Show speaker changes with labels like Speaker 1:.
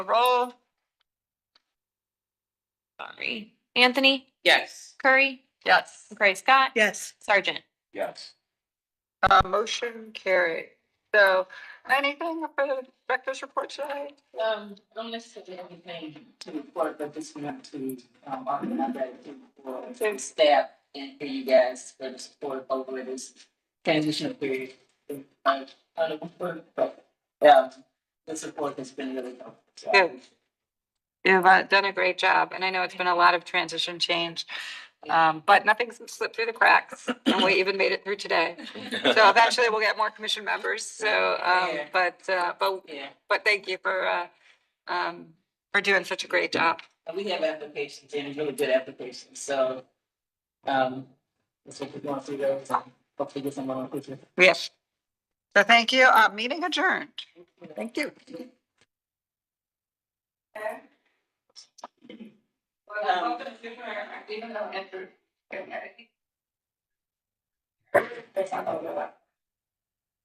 Speaker 1: Roll. Sorry. Anthony
Speaker 2: Yes.
Speaker 1: Curry,
Speaker 3: Yes.
Speaker 1: Gray Scott,
Speaker 3: Yes.
Speaker 1: Sergeant.
Speaker 2: Yes.
Speaker 3: Uh, motion carried. So anything for the director's report today?
Speaker 2: Um, don't necessarily have anything to report, but just want to, um, our, our, our staff and for you guys for the support over this transition period. Uh, kind of work, but, um, the support has been really helpful. so.
Speaker 3: Good. You've uh, done a great job and I know it's been a lot of transition change. Um, but nothing's slipped through the cracks and we even made it through today. So eventually we'll get more commission members. So, um,
Speaker 2: Yeah.
Speaker 3: but, uh, but,
Speaker 2: Yeah,
Speaker 3: but thank you for, uh, um, for doing such a great job.
Speaker 2: and we have applications in, really good applications, so, um, that's what we're going through those, and hopefully get someone on quickly.
Speaker 3: Yes. So thank you. Uh, meeting adjourned. Thank you.
Speaker 2: Um, That's not gonna go up.